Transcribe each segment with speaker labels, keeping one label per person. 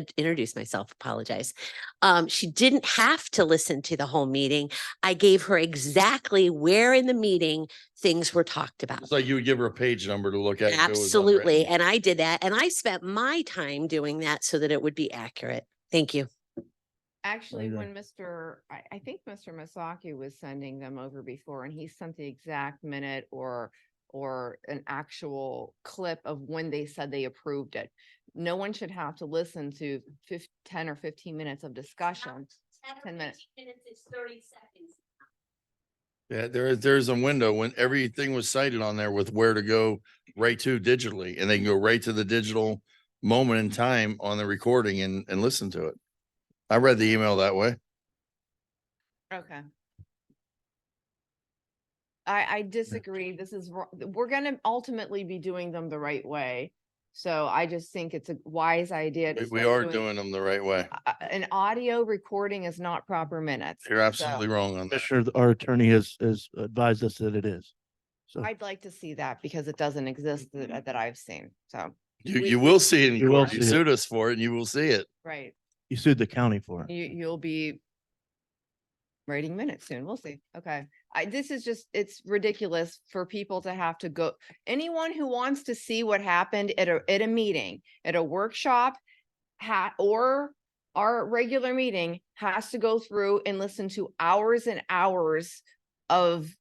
Speaker 1: uh, introduce myself, apologize. Um, she didn't have to listen to the whole meeting. I gave her exactly where in the meeting things were talked about.
Speaker 2: It's like you would give her a page number to look at. if it was
Speaker 1: Absolutely.
Speaker 2: unwritten.
Speaker 1: And I did that and I spent my time doing that so that it would be accurate. Thank you.
Speaker 3: Actually,
Speaker 2: go.
Speaker 3: when Mr., I, I think Mr. Masaki was sending them over before and he sent the exact minute or, or an actual clip of when they said they approved it. No one should have to listen to fif- ten or fifteen minutes of discussion. 10 minutes.
Speaker 4: Minutes is thirty seconds.
Speaker 2: Yeah, there is, there is a window when everything was cited on there with where to go right to digitally, and they can go right to the digital moment in time on the recording and, and listen to it. I read the email that way.
Speaker 3: Okay. I, I disagree. This is, wro- we're gonna ultimately be doing them the right way. So I just think it's a wise idea. to
Speaker 2: We- We
Speaker 3: start
Speaker 2: are doing them the right way.
Speaker 3: uh, an audio recording is not proper minutes.
Speaker 2: You're absolutely
Speaker 3: So,
Speaker 2: wrong on that.
Speaker 5: Commissioner, our attorney has, has advised us that it is. So
Speaker 3: I'd like to see that because it doesn't exist
Speaker 2: Mm-hmm.
Speaker 3: that, that I've seen. So,
Speaker 2: You,
Speaker 3: we-
Speaker 2: you will see it in
Speaker 5: You will
Speaker 2: court. You
Speaker 5: see it.
Speaker 2: sued us for it and you will see it.
Speaker 3: right,
Speaker 5: you sued the county for it.
Speaker 3: you, you'll be writing minutes soon. We'll see. Okay. I, this is just, it's ridiculous for people to have to go, anyone who wants to see what happened at a, at a meeting, at a workshop, ha, or our regular meeting has to go through and listen to hours and hours of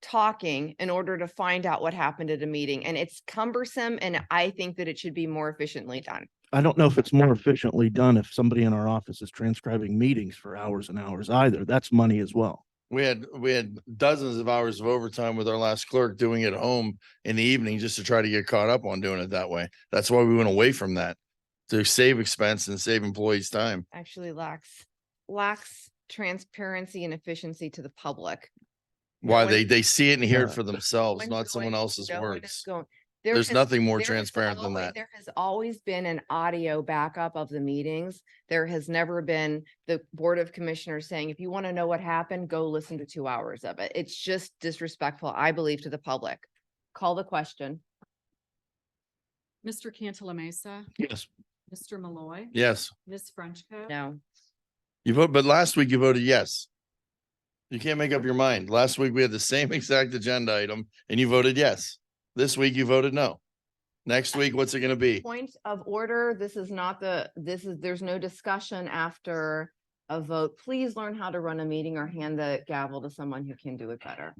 Speaker 3: talking in order to find out what happened at a meeting. And it's cumbersome and I think that it should be more efficiently done.
Speaker 5: I don't know if it's more efficiently done if somebody in our office is transcribing meetings for hours and hours either. That's money as well.
Speaker 2: We had, we had dozens of hours of overtime with our last clerk doing it at home in the evening just to try to get caught up on doing it that way. That's why we went away from that to save expense and save employees time.
Speaker 3: actually lacks lacks transparency and efficiency to the public. No
Speaker 2: Why
Speaker 3: one-
Speaker 2: they, they see it and hear it
Speaker 5: Yeah.
Speaker 2: for
Speaker 3: no
Speaker 2: themselves,
Speaker 3: one's
Speaker 2: not someone
Speaker 3: going-
Speaker 2: else's
Speaker 3: no one is
Speaker 2: words.
Speaker 3: going- There
Speaker 2: There's
Speaker 3: has-
Speaker 2: nothing more
Speaker 3: there has
Speaker 2: transparent than
Speaker 3: always-
Speaker 2: that.
Speaker 3: There has always been an audio backup of the meetings. There has never been the Board of Commissioners saying, if you want to know what happened, go listen to two hours of it. It's just disrespectful, I believe, to the public. Call the question.
Speaker 6: Mr. Cantala Mesa,
Speaker 5: Yes.
Speaker 6: Mr. Malloy,
Speaker 2: Yes,
Speaker 6: Ms. Frenchco.
Speaker 3: No.
Speaker 2: you vote, but last week you voted yes. You can't make up your mind. Last week we had the same exact agenda item and you voted yes. This week you voted no. Next week, what's it gonna be?
Speaker 3: Point of order, this is not the, this is, there's no discussion after a vote. Please learn how to run a meeting or hand the gavel to someone who can do it better.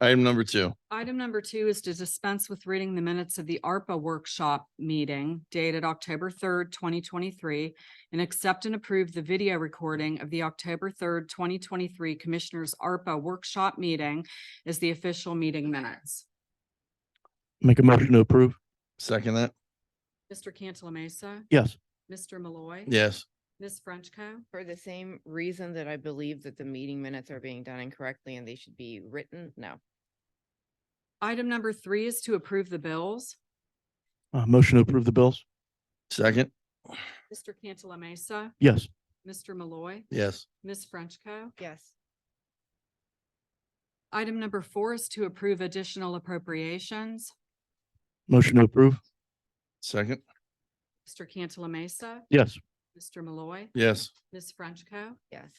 Speaker 2: Item number two.
Speaker 6: Item number two is to dispense with reading the minutes of the ARPA workshop meeting dated October third, twenty twenty-three, and accept and approve the video recording of the October third, twenty twenty-three Commissioners ARPA workshop meeting as the official meeting minutes.
Speaker 5: Make a motion to approve.
Speaker 2: Second that?
Speaker 6: Mr. Cantala Mesa,
Speaker 5: Yes.
Speaker 6: Mr. Malloy.
Speaker 2: Yes.
Speaker 6: Ms. Frenchco.
Speaker 3: For the same reason that I believe that the meeting minutes are being done incorrectly and they should be written, no.
Speaker 6: Item number three is to approve the bills.
Speaker 5: Uh, motion to approve the bills.
Speaker 2: Second?
Speaker 6: Mr. Cantala Mesa,
Speaker 5: Yes.
Speaker 6: Mr. Malloy,
Speaker 2: Yes.
Speaker 6: Ms. Frenchco.
Speaker 3: Yes.
Speaker 6: Item number four is to approve additional appropriations.
Speaker 5: Motion to approve.
Speaker 2: Second?
Speaker 6: Mr. Cantala Mesa,
Speaker 5: Yes.
Speaker 6: Mr. Malloy,
Speaker 2: Yes.
Speaker 6: Ms. Frenchco.
Speaker 3: Yes.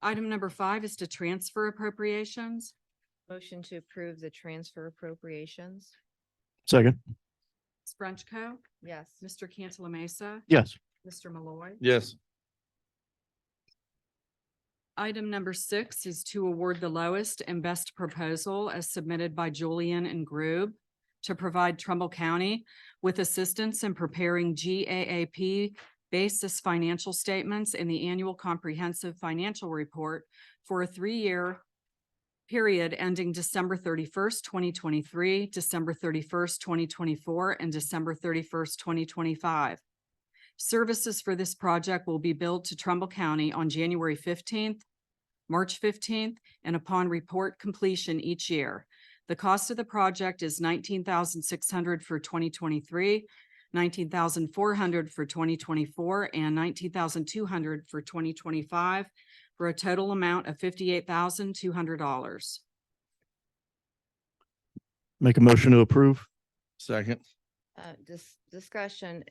Speaker 6: Item number five is to transfer appropriations.
Speaker 3: Motion to approve the transfer appropriations?
Speaker 5: Second.
Speaker 6: Ms. Frenchco.
Speaker 3: Yes.
Speaker 6: Mr. Cantala Mesa,
Speaker 5: Yes.
Speaker 6: Mr. Malloy.
Speaker 2: Yes.
Speaker 6: Item number six is to award the lowest and best proposal as submitted by Julian and Grube to provide Trumbull County with assistance in preparing GAAP basis financial statements and the annual comprehensive financial report for a three-year period ending December thirty-first, twenty twenty-three, December thirty-first, twenty twenty-four, and December thirty-first, twenty twenty-five. Services for this project will be billed to Trumbull County on January fifteenth, March fifteenth, and upon report completion each year. The cost of the project is nineteen thousand six hundred for twenty twenty-three, nineteen thousand four hundred for twenty twenty-four, and nineteen thousand two hundred for twenty twenty-five, for a total amount of fifty-eight thousand two hundred dollars.
Speaker 5: Make a motion to approve.
Speaker 2: Second?
Speaker 3: uh, dis- discussion,